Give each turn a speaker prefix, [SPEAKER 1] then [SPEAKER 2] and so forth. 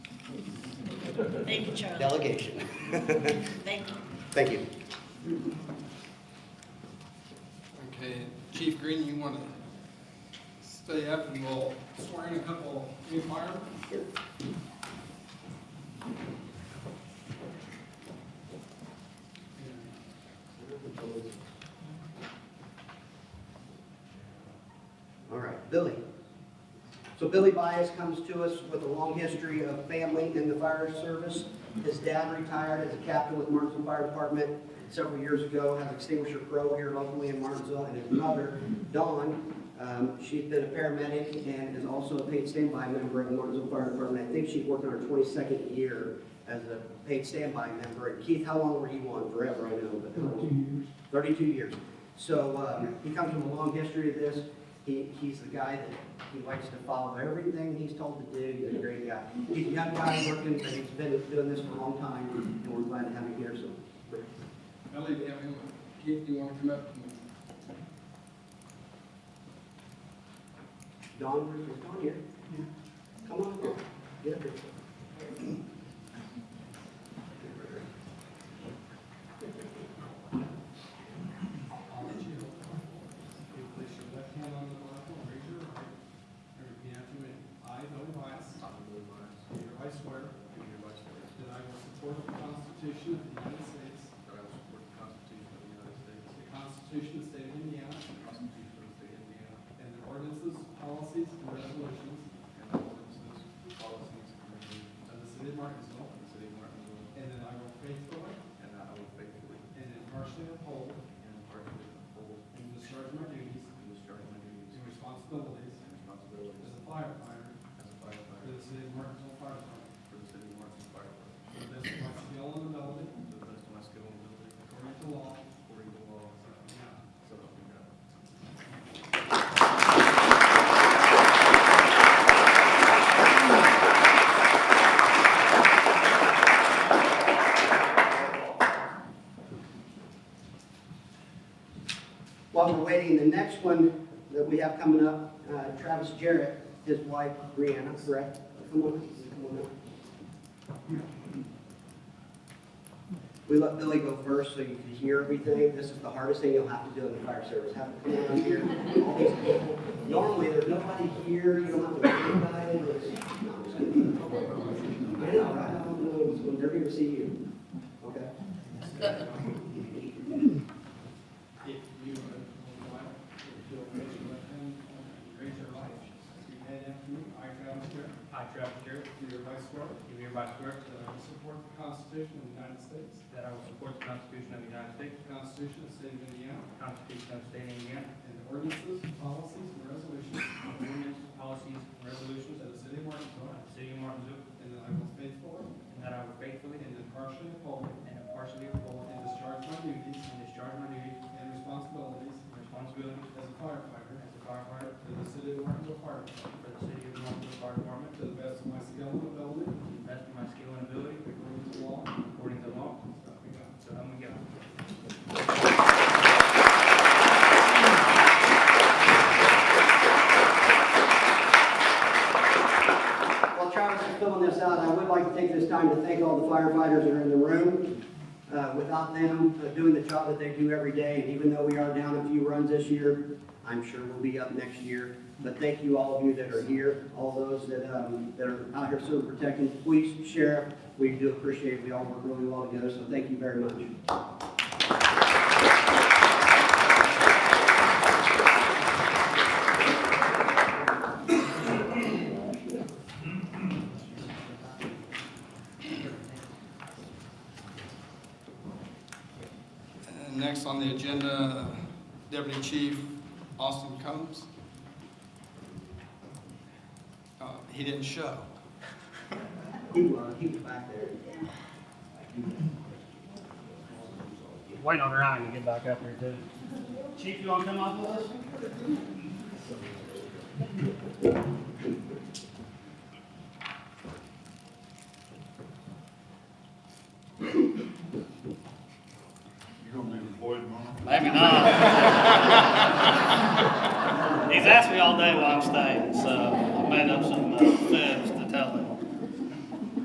[SPEAKER 1] Thank you, Charlie.
[SPEAKER 2] delegation.
[SPEAKER 1] Thank you.
[SPEAKER 2] Thank you.
[SPEAKER 3] Okay, Chief Green, you want to stay up and we'll swear in a couple new firemen?
[SPEAKER 2] All right, Billy. So Billy Bias comes to us with a long history of family in the fire service. His dad retired as a captain with Martinsville Fire Department several years ago, has extinguisher pro here locally in Martinsville, and his mother, Dawn, um, she's been a paramedic and is also a paid standby member of Martinsville Fire Department. I think she's working her twenty-second year as a paid standby member. And Keith, how long were you on? Forever, I know, but. how long? 32 years. So um, he comes from a long history of this. He, he's the guy that, he likes to follow everything he's told to do. He's a great guy. He's a young guy working, but he's been doing this for a long time, and we're glad to have him here, so.
[SPEAKER 3] Ellie, do you have him, Keith, do you want to come up?
[SPEAKER 2] Don, is Don here? Come on, Don. get up here.
[SPEAKER 3] You place your left hand on the Bible and raise your right. And repeat after me. I, Billy Bias. I, Billy Bias. Do hereby swear. Do hereby swear. That I will support the Constitution of the United States. That I will support the Constitution of the United States. The Constitution of the State of Indiana. The Constitution of the State of Indiana. And the ordinances, policies, and resolutions. And the ordinances, policies, and resolutions. Of the city of Martinsville. Of the city of Martinsville. And that I will faithfully. And that I will faithfully. And impartially uphold. And impartially uphold. And discharge my duties. And discharge my duties. And responsibilities. And responsibilities. As a firefighter. As a firefighter. For the city of Martinsville Fire Department. For the city of Martinsville Fire Department. To the best of my skill and ability. To the best of my skill and ability. According to law. According to law. So help me God. So help me God.
[SPEAKER 2] While we're waiting, the next one that we have coming up, uh, Travis Jarrett, his wife Brianna, correct? Come on, come on up. We let Billy go first so you can hear everything. This is the hardest thing you'll have to do in the fire service, have to come down here. all these people. Normally, there's nobody here, you don't have to wait anybody. It's- no, I'm just kidding. I know, right? I don't know, it's- they're here to see you. Okay?
[SPEAKER 3] If you would like, if you'll raise your left hand, and raise your right, repeat after me. I, Travis Garrett,
[SPEAKER 4] I, Travis Garrett,
[SPEAKER 3] do hereby swear
[SPEAKER 4] do hereby swear
[SPEAKER 3] that I will support the Constitution of the United States,
[SPEAKER 4] that I will support the Constitution of the United States,
[SPEAKER 3] the Constitution of the State of Indiana,
[SPEAKER 4] the Constitution of the State of Indiana,
[SPEAKER 3] and the ordinances, policies, and resolutions
[SPEAKER 4] and the ordinances, policies, and resolutions
[SPEAKER 3] of
[SPEAKER 4] of
[SPEAKER 3] the City of Martinsville,
[SPEAKER 4] the City of Martinsville,
[SPEAKER 3] and that I will faithfully
[SPEAKER 4] and that I will faithfully
[SPEAKER 3] and impartially uphold
[SPEAKER 4] and impartially perform
[SPEAKER 3] and discharge my duties
[SPEAKER 4] and discharge my duties
[SPEAKER 3] and responsibilities
[SPEAKER 4] and responsibilities
[SPEAKER 3] as a firefighter
[SPEAKER 4] as a firefighter
[SPEAKER 3] for the City of Martinsville Fire Department,
[SPEAKER 4] for the City of Martinsville Fire Department,
[SPEAKER 3] to the best of my skill and ability,
[SPEAKER 4] to the best of my skill and ability,
[SPEAKER 3] according to law,
[SPEAKER 4] according to law,
[SPEAKER 3] so help me God.
[SPEAKER 4] so help me God.
[SPEAKER 2] While Travis is filling this out, I would like to take this time to thank all the firefighters that are in the room. Uh, Without them uh, doing the job that they do every day, and even though we are down a few runs this year, I'm sure we'll be up next year. But thank you, all of you that are here, all those that, um, that are out here serving, protecting the police, sheriff. We do appreciate, it. we all work really well together, so thank you very much.
[SPEAKER 3] And Uh, next on the agenda, Deputy Chief Austin Combs. Uh, He didn't show.
[SPEAKER 2] He was, he was uh, back there.
[SPEAKER 5] Wait on Ryan to get back up here too. Chief, you wanna come up with us?
[SPEAKER 6] You're gonna be employed tomorrow?
[SPEAKER 5] Maybe not. He's asked me all day why I'm staying, so I made up some, uh,